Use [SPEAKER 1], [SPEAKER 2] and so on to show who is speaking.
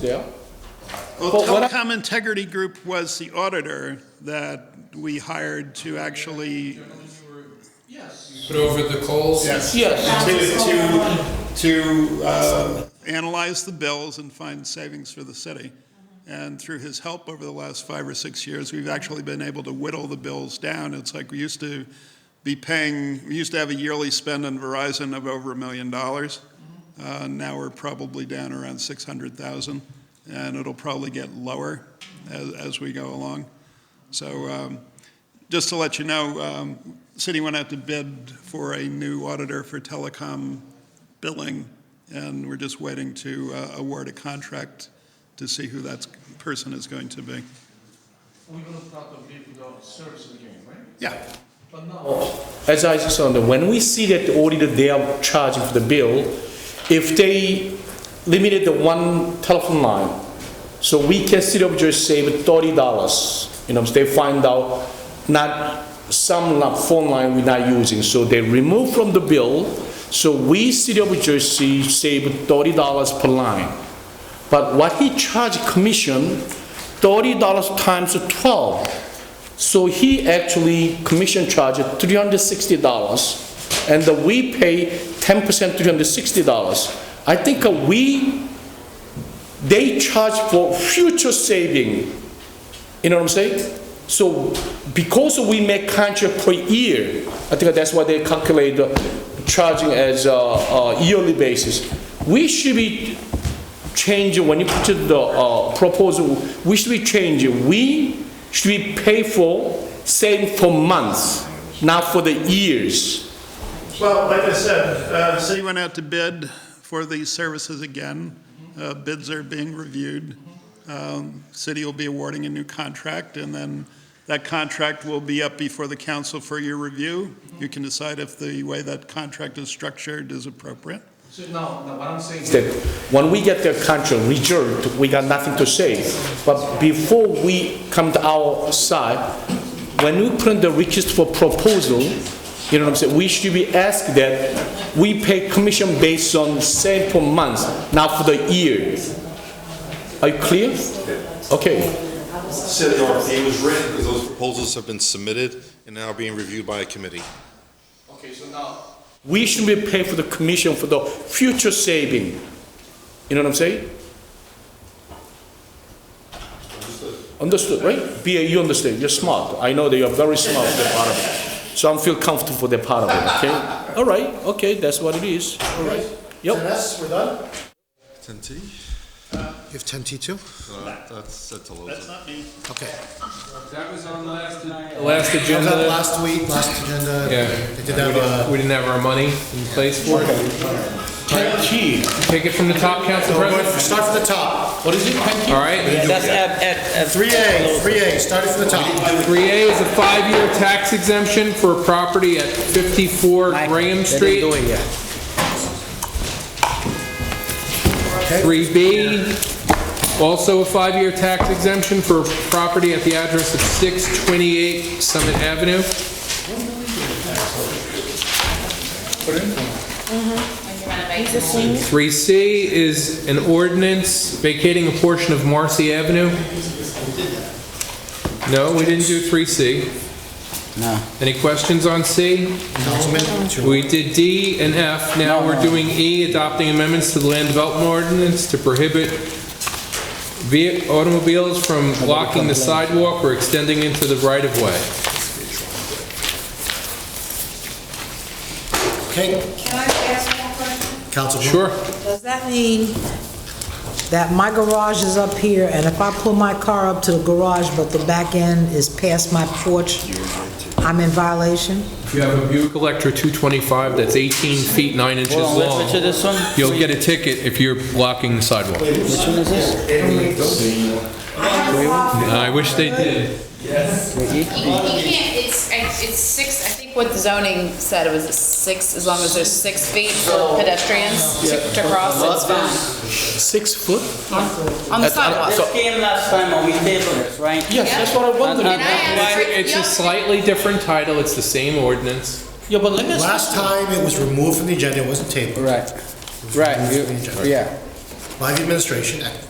[SPEAKER 1] Yeah. But
[SPEAKER 2] Well,
[SPEAKER 1] what I-
[SPEAKER 2] Telecom Integrity Group was the auditor that we hired to actually,
[SPEAKER 3] Put over the coals?
[SPEAKER 2] yes,
[SPEAKER 1] Yes.
[SPEAKER 2] to, to, to uh, analyze the bills and find savings for the city. And through his help over the last five or six years, we've actually been able to whittle the bills down. It's like we used to be paying, we used to have a yearly spend on Verizon of over a million dollars. Uh, Now we're probably down around 600,000, and it'll probably get lower as, as we go along. So um, just to let you know, um, city went out to bid for a new auditor for telecom billing, and we're just waiting to uh, award a contract to see who that person is going to be.
[SPEAKER 4] We're gonna start to bid the service again, right?
[SPEAKER 2] Yeah.
[SPEAKER 4] But now,
[SPEAKER 1] As I just said, when we see that the auditor, they are charging for the bill, if they limited the one telephone line, so we can sit up just save thirty dollars. You know, they find out not, some la- phone line we're not using, so they remove from the bill. So we city of Jersey save thirty dollars per line. But what he charged commission, thirty dollars times twelve. So he actually commission charged three hundred sixty dollars, and the- we pay ten percent, three hundred sixty dollars. I think uh, we, they charge for future saving. You know what I'm saying? So because we make contract per year, I think that's why they calculate the charging as a, a yearly basis. We should be change when you put the uh, proposal, we should be changing, we should be pay for same for months, not for the years.
[SPEAKER 2] Well, like I said, uh, city went out to bid for these services again. Uh, Bids are being reviewed. Um, City will be awarding a new contract, and then that contract will be up before the council for your review. You can decide if the way that contract is structured is appropriate.
[SPEAKER 4] so now, now what I'm saying
[SPEAKER 1] It's
[SPEAKER 4] is
[SPEAKER 1] That when we get the contract reserved, we got nothing to say. But before we come to our side, when we put in the request for proposal, you know what I'm saying, we should be asked that we pay commission based on same for months, not for the year. Are you clear? Okay.
[SPEAKER 5] said the RFP was written, because those proposals have been submitted and now being reviewed by a committee.
[SPEAKER 4] Okay, so now,
[SPEAKER 1] we should be paying for the commission for the future saving. You know what I'm saying? Understood, right? BA, you understand, you're smart. I know that you're very smart for that part of it. So I'm feel comfortable for that part of it, okay? All right, okay, that's what it is, all right. Yep,
[SPEAKER 6] Yes, we're done.
[SPEAKER 5] Ten T?
[SPEAKER 6] You have ten T two?
[SPEAKER 5] That's, that's a little.
[SPEAKER 6] Okay.
[SPEAKER 3] That was on last.
[SPEAKER 7] Last
[SPEAKER 6] Was that
[SPEAKER 7] agenda,
[SPEAKER 6] last week, last agenda?
[SPEAKER 3] Yeah.
[SPEAKER 6] They did have uh, a,
[SPEAKER 7] we didn't have our money in place for it.
[SPEAKER 1] ten T,
[SPEAKER 7] Take it from the top, Council
[SPEAKER 6] we're going,
[SPEAKER 7] President.
[SPEAKER 6] start from the top.
[SPEAKER 1] what is it, ten T?
[SPEAKER 7] All right.
[SPEAKER 8] That's at, at, at
[SPEAKER 6] Three A, three A, starting from the top.
[SPEAKER 7] 3A is a five-year tax exemption for property at 54 Graham Street.
[SPEAKER 8] They didn't do it yet.
[SPEAKER 7] 3B, also a five-year tax exemption for property at the address of 628 Summit Avenue. 3C is an ordinance vacating a portion of Marcy Avenue. No, we didn't do 3C. No. Any questions on C?
[SPEAKER 6] Councilman, two.
[SPEAKER 7] We did D and F, now we're doing E, adopting amendments to the land development ordinance to prohibit vehi- automobiles from blocking the sidewalk or extending into the right-of-way.
[SPEAKER 6] Okay,
[SPEAKER 9] Can I ask one question?
[SPEAKER 6] Councilman.
[SPEAKER 7] Sure?
[SPEAKER 9] Does that mean that my garage is up here, and if I pull my car up to the garage, but the back end is past my porch, I'm in violation?
[SPEAKER 7] You have a Buick Electra 225 that's 18 feet 9 inches
[SPEAKER 8] Hold on, let's switch to
[SPEAKER 7] long.
[SPEAKER 8] this one.
[SPEAKER 7] You'll get a ticket if you're blocking the sidewalk.
[SPEAKER 8] Which one is this?
[SPEAKER 7] I wish they did.
[SPEAKER 10] You you can't, it's, I- it's six, I think what the zoning said was six, as long as there's six feet for pedestrians to to cross, it's fine.
[SPEAKER 1] Six foot?
[SPEAKER 10] On the sidewalk.
[SPEAKER 8] This came last time when we tabled this, right?
[SPEAKER 1] Yes, that's what I
[SPEAKER 10] And
[SPEAKER 1] wondered.
[SPEAKER 10] I asked,
[SPEAKER 7] It's a slightly different title, it's the same ordinance.
[SPEAKER 1] Yeah, but let me ask,
[SPEAKER 6] Last time it was removed from the agenda, it wasn't tabled.
[SPEAKER 8] Right, right, you- yeah.
[SPEAKER 6] By the administration, act-